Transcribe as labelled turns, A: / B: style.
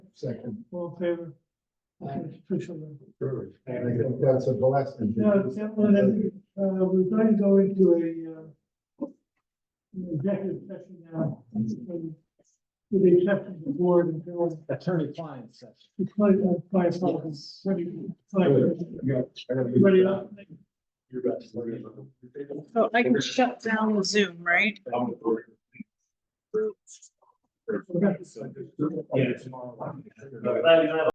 A: second.
B: all in favor.
A: Aye.
B: Official.
A: Perfect. And I think that's a blessing.
B: Now, gentlemen, uh, we're going to go into a, uh, an executive session now. um, With the exception of the board and Bill,
C: Attorney client session.
B: it's like, uh, five seconds, ready, five,
A: Yeah, I gotta get-
B: ready up.
A: You're back. We're good.
D: So I can shut down the Zoom, right?
A: I'm-
B: Okay.
A: Yeah, tomorrow.